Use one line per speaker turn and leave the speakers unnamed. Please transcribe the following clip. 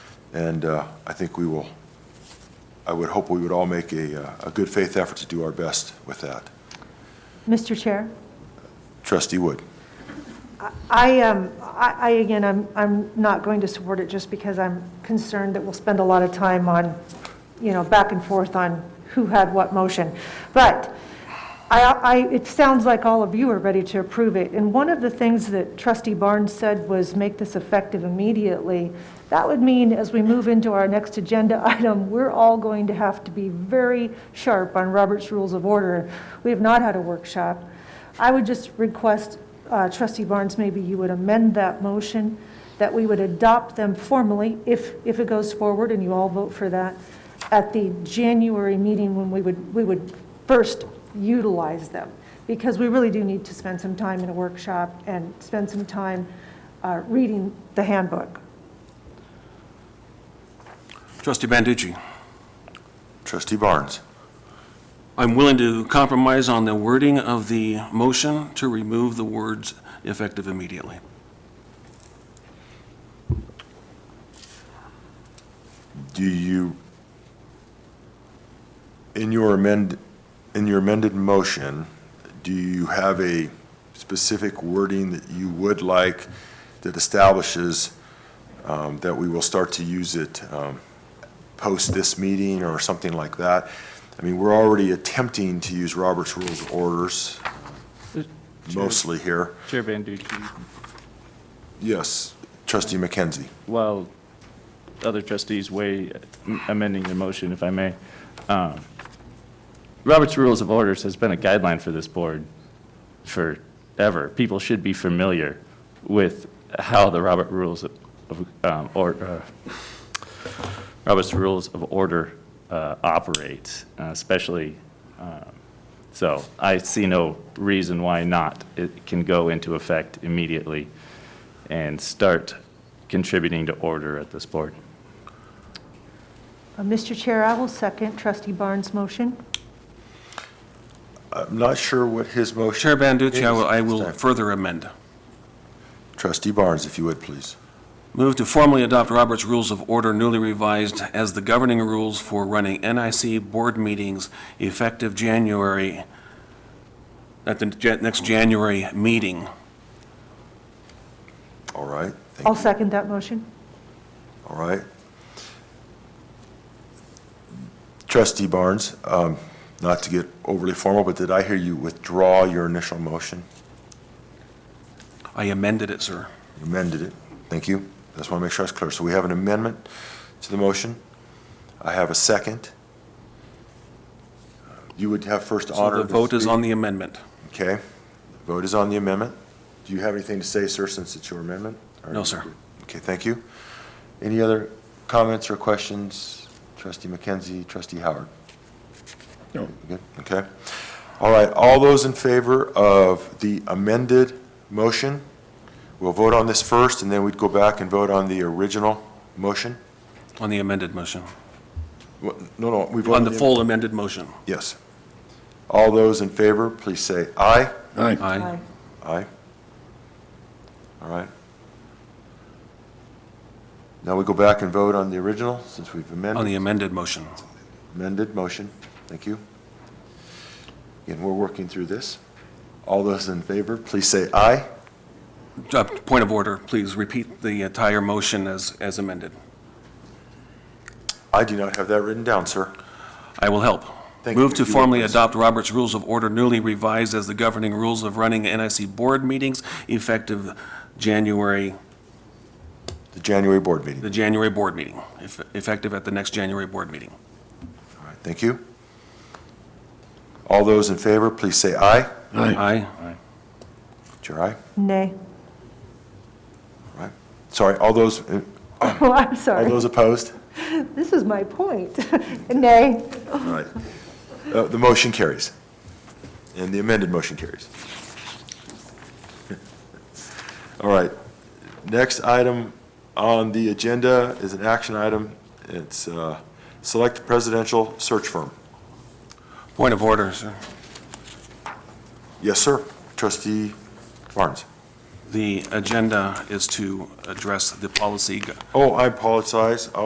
And uh, I think we will, I would hope we would all make a, uh, a good faith effort to do our best with that.
Mr. Chair?
Trustee Wood.
I, um, I, I, again, I'm, I'm not going to support it just because I'm concerned that we'll spend a lot of time on, you know, back and forth on who had what motion. But I, I, it sounds like all of you are ready to approve it. And one of the things that trustee Barnes said was make this effective immediately. That would mean as we move into our next agenda item, we're all going to have to be very sharp on Robert's Rules of Order. We have not had a workshop. I would just request, uh, trustee Barnes, maybe you would amend that motion, that we would adopt them formally, if, if it goes forward and you all vote for that, at the January meeting when we would, we would first utilize them. Because we really do need to spend some time in a workshop and spend some time uh, reading the handbook.
Trustee Banducci,
Trustee Barnes.
I'm willing to compromise on the wording of the motion to remove the words effective immediately.
Do you, in your amend, in your amended motion, do you have a specific wording that you would like that establishes um, that we will start to use it um, post this meeting or something like that? I mean, we're already attempting to use Robert's Rules of Orders mostly here.
Chair Banducci,
Yes, trustee McKenzie.
while other trustees weigh amending the motion, if I may, um, Robert's Rules of Orders has been a guideline for this board forever. People should be familiar with how the Robert Rules of, um, or, uh, Robert's Rules of Order uh, operate, uh, especially, um, so I see no reason why not. It can go into effect immediately and start contributing to order at this board.
Uh, Mr. Chair, I will second trustee Barnes' motion.
I'm not sure what his motion.
Chair Banducci, I will, I
is.
will further amend.
Trustee Barnes, if you would, please.
Move to formally adopt Robert's Rules of Order newly revised as the governing rules for running NIC board meetings effective January, at the ja- next January meeting.
All right, thank
I'll
you.
second that motion.
All right. Trustee Barnes, um, not to get overly formal, but did I hear you withdraw your initial motion?
I amended it, sir.
You Amended it. Thank you. Just want to make sure it's clear. So we have an amendment to the motion. I have a second. You would have first
So
honor.
the
to
vote is
speak.
on the amendment.
Okay. The Vote is on the amendment. Do you have anything to say, sir, since it's your amendment? Or-
No, sir.
Okay, thank you. Any other comments or questions? Trustee McKenzie, trustee Howard? No. Good, okay. All right, all those in favor of the amended motion, we'll vote on this first, and then we'd go back and vote on the original motion?
On the amended motion.
What- No, no, we voted.
On the full amended motion.
Yes. All those in favor, please say aye.
Aye.
Aye. All right. Now we go back and vote on the original, since we've
On the
amended,
amended motion.
amended motion. Thank you. Again, we're working through this. All those in favor, please say aye.
Uh, Point of order, please repeat the entire motion as, as amended.
I do not have that written down, sir.
I will help.
Thank
Move
you.
to
You will,
formally
please.
adopt Robert's Rules of Order newly revised as the governing rules of running NIC board meetings effective January,
The January board meeting.
the January board meeting, eff- effective at the next January board meeting.
All right, thank you. All those in favor, please say aye.
Aye.
It's your aye,
Nay.
all right? Sorry, all those, uh,
Oh, I'm
all
sorry.
those opposed?
This is my point. Nay.
All right. Uh, The motion carries. And the amended motion carries. All right. Next item on the agenda is an action item. It's uh, Select Presidential Search Firm.
Point of order, sir.
Yes, sir. Trustee Barnes.
The agenda is to address the policy go-
Oh, I apologize.